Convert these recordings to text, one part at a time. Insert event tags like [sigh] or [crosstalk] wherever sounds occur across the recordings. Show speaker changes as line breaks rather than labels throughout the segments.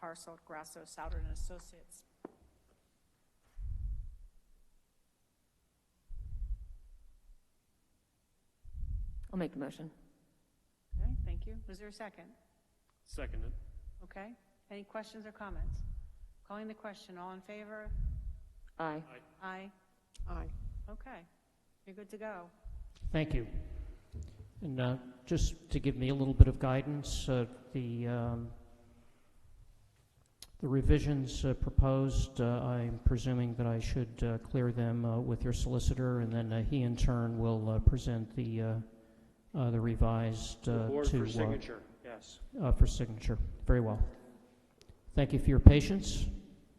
Sarso Grasso Souder and Associates.
I'll make the motion.
Okay, thank you. Was there a second?
Seconded.
Okay. Any questions or comments? Calling the question, all in favor?
Aye.
Aye.
Aye.
Okay. You're good to go.
Thank you. And uh, just to give me a little bit of guidance, uh, the um, the revisions uh, proposed, uh, I'm presuming that I should uh, clear them uh, with your solicitor, and then uh, he in turn will uh, present the uh, uh, the revised
The
uh,
board
to,
for
uh,
signature, yes.
uh, for signature. Very well. Thank you for your patience.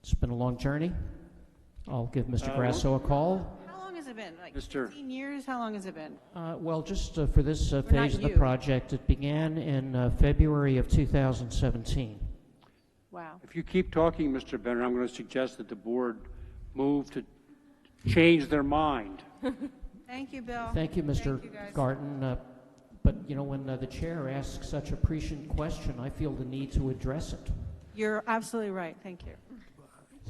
It's been a long journey. I'll give Mr.
Uh,
Grasso a call.
How long has it been? Like
Mr.
15 years? How long has it been?
Uh, Well, just uh, for this uh,
We're not
phase of the
you.
project, it began in uh, February of 2017.
Wow.
If you keep talking, Mr. Benner, I'm going to suggest that the board move to change their mind.
Thank you, Bill.
Thank you, Mr.
Thank you, guys.
Garten. uh, But, you know, when uh, the chair asks such a prescient question, I feel the need to address it.
You're absolutely right. Thank you.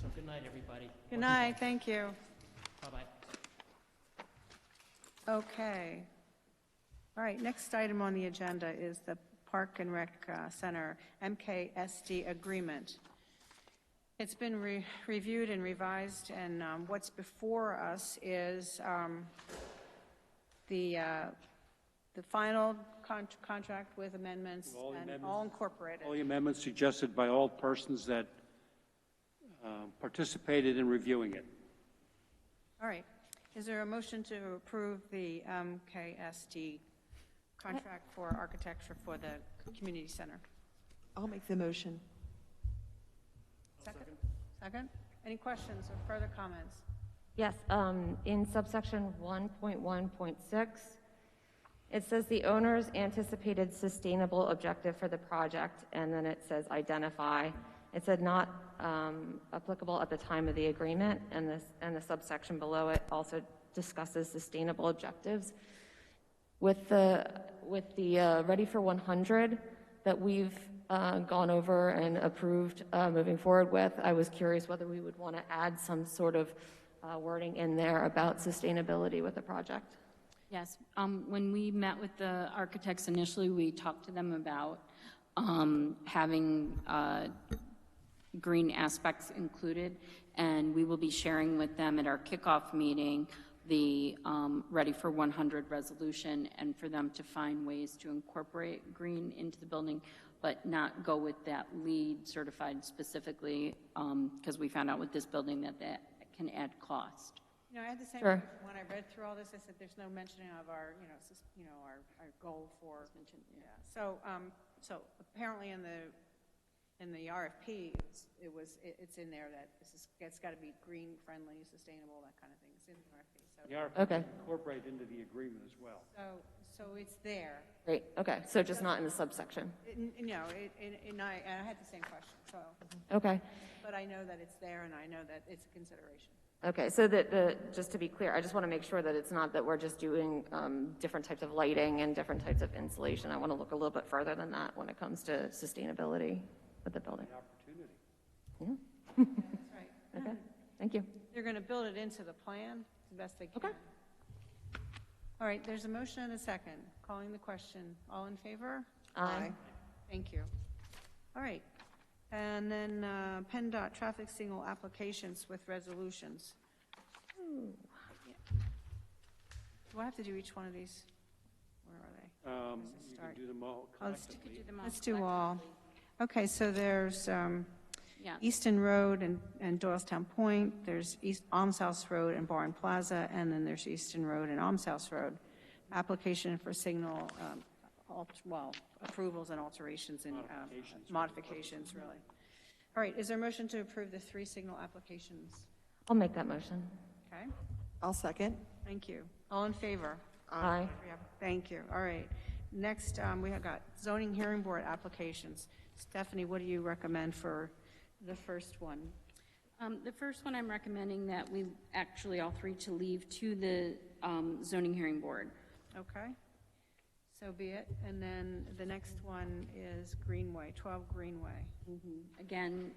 So good night, everybody.
Good night. Thank you.
Bye-bye.
Okay. All right, next item on the agenda is the Park and Rec uh, Center MKSD agreement. It's been re- reviewed and revised, and um, what's before us is um, the, uh, the final con- contract with amendments
all
and
amendments.
all incorporated.
All the amendments suggested by all persons that uh, participated in reviewing it.
All right. Is there a motion to approve the MKSD contract for architecture for the community center?
I'll make the motion.
Second? Second? Any questions or further comments?
Yes, um, in subsection 1.1.6, it says the owner's anticipated sustainable objective for the project, and then it says identify. It said not um, applicable at the time of the agreement, and this, and the subsection below it also discusses sustainable objectives. With the, with the uh, Ready for 100 that we've uh, gone over and approved uh, moving forward with, I was curious whether we would want to add some sort of uh, wording in there about sustainability with the project.
Yes, um, when we met with the architects initially, we talked to them about, um, having, uh, green aspects included, and we will be sharing with them at our kickoff meeting the, um, Ready for 100 resolution, and for them to find ways to incorporate green into the building, but not go with that lead certified specifically, um, because we found out with this building that that can add cost.
You know, I had the same,
Sure.
question when I read through all this, I said, there's no mentioning of our, you know, sus- you know, our, our goal for. Yeah. So, um, so apparently in the, in the RFP, it's- it was, it- it's in there that this is, it's got to be green friendly, sustainable, that kind of thing. It's in the RFP. So,
Okay.
Incorporate into the agreement as well.
so, so it's there.
Great, okay, so just not in the subsection.
It- You know, it- and, and I, and I had the same question, so,
Okay,
but I know that it's there and I know that it's a consideration.
okay, so that the, just to be clear, I just want to make sure that it's not that we're just doing um, different types of lighting and different types of insulation. I want to look a little bit further than that when it comes to sustainability with the building.
Opportunity.
[laughs]
That's right.
Okay, thank you.
They're going to build it into the plan the best they can.
Okay.
All right, there's a motion and a second. Calling the question. All in favor?
Aye.
Thank you. All right. And then uh, PennDOT traffic signal applications with resolutions. Do I have to do each one of these? Where are they?
Um,
Let's
You
start.
can do them all
Let's-
collectively.
Let's do all. Okay, so there's um,
Yeah.
Easton Road and and Doylestown Point, there's East Alms House Road and Barn Plaza, and then there's Easton Road and Alms House Road. Application for signal, um, alt- well, approvals and alterations and um, modifications, really. All right, is there a motion to approve the three signal applications?
I'll make that motion.
Okay,
I'll second.
thank you. All in favor?
Aye.
Thank you, all right. Next, um, we have got zoning hearing board applications. Stephanie, what do you recommend for the first one?
Um, The first one, I'm recommending that we, actually, all three to leave to the um, zoning hearing board.
Okay, so be it. And then the next one is Greenway, 12 Greenway.
Again,